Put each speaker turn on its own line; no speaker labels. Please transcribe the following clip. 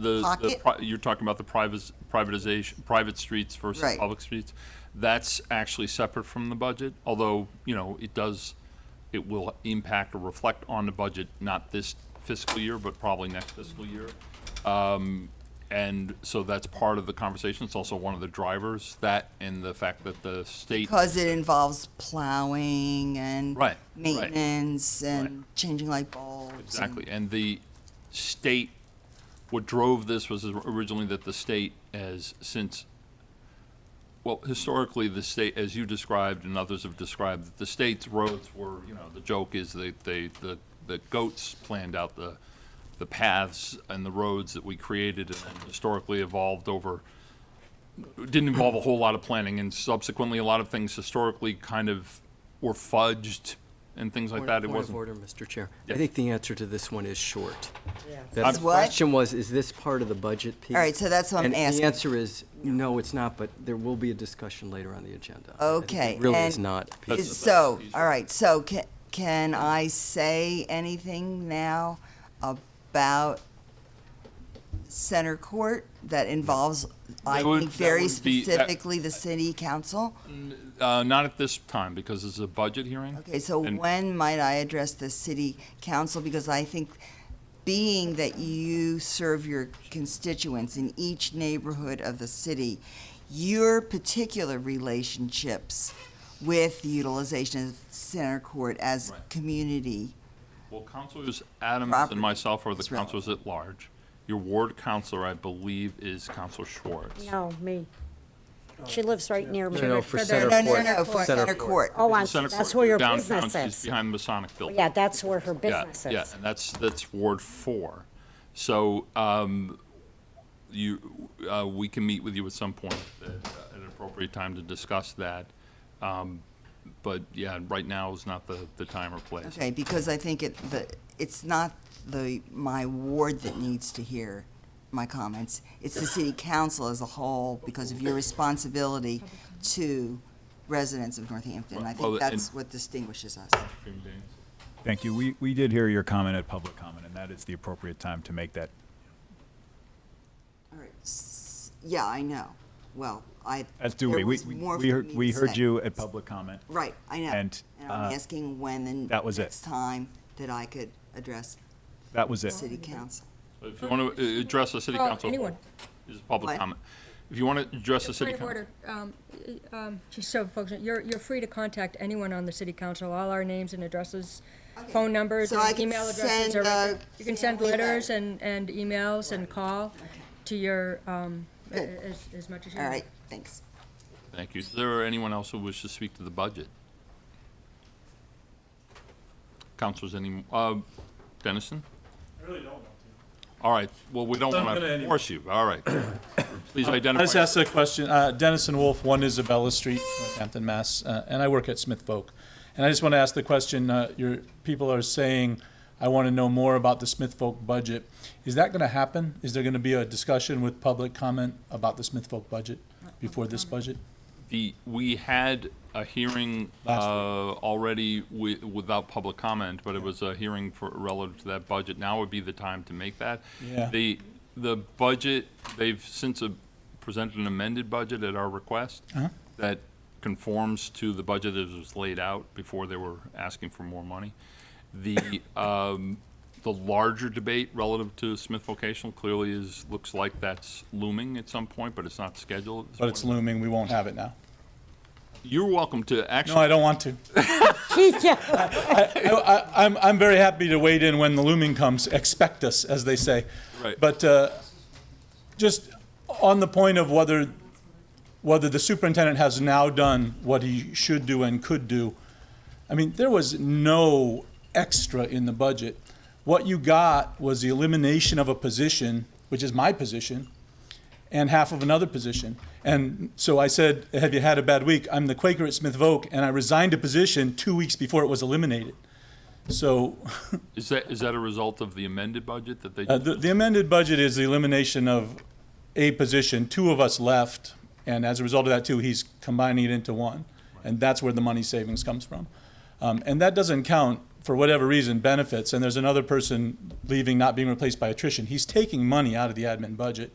the- the,
Pocket?
pri- you're talking about the privat- privatization, private streets versus
Right.
public streets. That's actually separate from the budget, although, you know, it does, it will impact or reflect on the budget, not this fiscal year, but probably next fiscal year. Um, And so that's part of the conversation. It's also one of the drivers, that and the fact that the state.
Because it involves plowing and
Right, right.
maintenance and changing light bulbs. and-
Exactly, and the state, what drove this was originally that the state has since, well, historically, the state, as you described and others have described, that the state's roads were, you know, the joke is that they, the, the goats planned out the, the paths and the roads that we created and then historically evolved over didn't involve a whole lot of planning, and subsequently, a lot of things historically kind of were fudged and things like that. It
Point of
wasn't.
order, Mr. Chair.
Yeah.
I think the answer to this one is short.
Is
The
what?
question was, is this part of the budget piece?
All right, so that's what I'm
And
asking.
the answer is, no, it's not, but there will be a discussion later on the agenda. I think it
Okay,
Really is
and-
not. a piece
Is-
of-
So, all right, so can, can I say anything now about center court that involves, I
That would-
think,
that
very
would be- that-
specifically the city council?
Uh, not at this time, because it's a budget hearing.
Okay, so
And-
when might I address the city council? Because I think, being that you serve your constituents in each neighborhood of the city, your particular relationships with the utilization of center court as
Right.
community,
Well, Councilors Adams
Property
and myself are the
is relevant.
councilors at large. Your ward counselor, I believe, is Counselor Schwartz.
No, me. She lives right near me.
No, no, for
Center
center
no,
court.
no, no, for
Center
center court.
Oh, I-
Center
that's
Court,
where your
downtown,
business
She's
is.
behind the Masonic Building.
Yeah, that's where her
Yeah,
business
Yeah,
is.
and that's, that's Ward Four. So, um, you, uh, we can meet with you at some point at at an appropriate time to discuss that. Um, But yeah, right now is not the, the time or place.
Okay, because I think it, the, it's not the, my ward that needs to hear my comments. It's the city council as a whole because of your responsibility to residents of Northampton. I
Well,
think
and-
that's what distinguishes us.
Thank you. We, we did hear your comment at public comment, and that is the appropriate time to make that
All right. S- Yeah, I know. Well, I.
As do
there
we. We,
was
we,
more
we
for
heard,
me
we
to
heard
say.
you at public comment.
Right, I know.
and,
And I'm
uh,
asking when the
that was it.
next time that I could address
That was
the
it.
city council.
If you want to address the city
Well,
council.
anyone.
This is public
What?
comment. If you want to address the city
Point of
council.
order, um, um, just so folks, know, you're, you're free to contact anyone on the city council, all our names and addresses, phone numbers,
So
and
I can
email addresses.
send,
are
uh,
right- You can send
family
letters
letter.
and, and emails and call to your, um, a-
Good.
a- as, as much as you
All
want.
right, thanks.
Thank you. Is there anyone else who wishes to speak to the budget? Councilors, any, uh, Dennison?
really don't want
All right, well, we don't
Not
want
gonna
to
anyway.
force you, all right. Please
I just
identify.
asked a question. Uh, Dennis and Wolf, one Isabella Street, Northampton, Mass., uh, and I work at Smith Folk. And I just want to ask the question, uh, your people are saying, I want to know more about the Smith Folk budget. Is that going to happen? Is there going to be a discussion with public comment about the Smith Folk budget before this budget?
The, we had a hearing, uh,
Last
already wi- without public comment, but it was a hearing for, relative to that budget. Now would be the time to make that.
Yeah.
The, the budget, they've since uh, presented an amended budget at our request
Uh-huh.
that conforms to the budget as was laid out before they were asking for more money. The, um, the larger debate relative to Smith Vocational clearly is, looks like that's looming at some point, but it's not scheduled. at this
But it's
point.
looming, we won't have it now.
You're welcome to actually.
No, I don't want to. I, I, I'm, I'm very happy to wade in when the looming comes. Expect us, as they say.
Right.
But uh, just on the point of whether whether the superintendent has now done what he should do and could do, I mean, there was no extra in the budget. What you got was the elimination of a position, which is my position, and half of another position. And so I said, Have you had a bad week? I'm the Quaker at Smith Voke, and I resigned a position two weeks before it was eliminated. So
Is that, is that a result of the amended budget that they?
uh, the, the amended budget is the elimination of a position. Two of us left, and as a result of that, too, he's combining it into one. And that's where the money savings comes from. Um, and that doesn't count for whatever reason, benefits, and there's another person leaving, not being replaced by attrition, he's taking money out of the admin budget.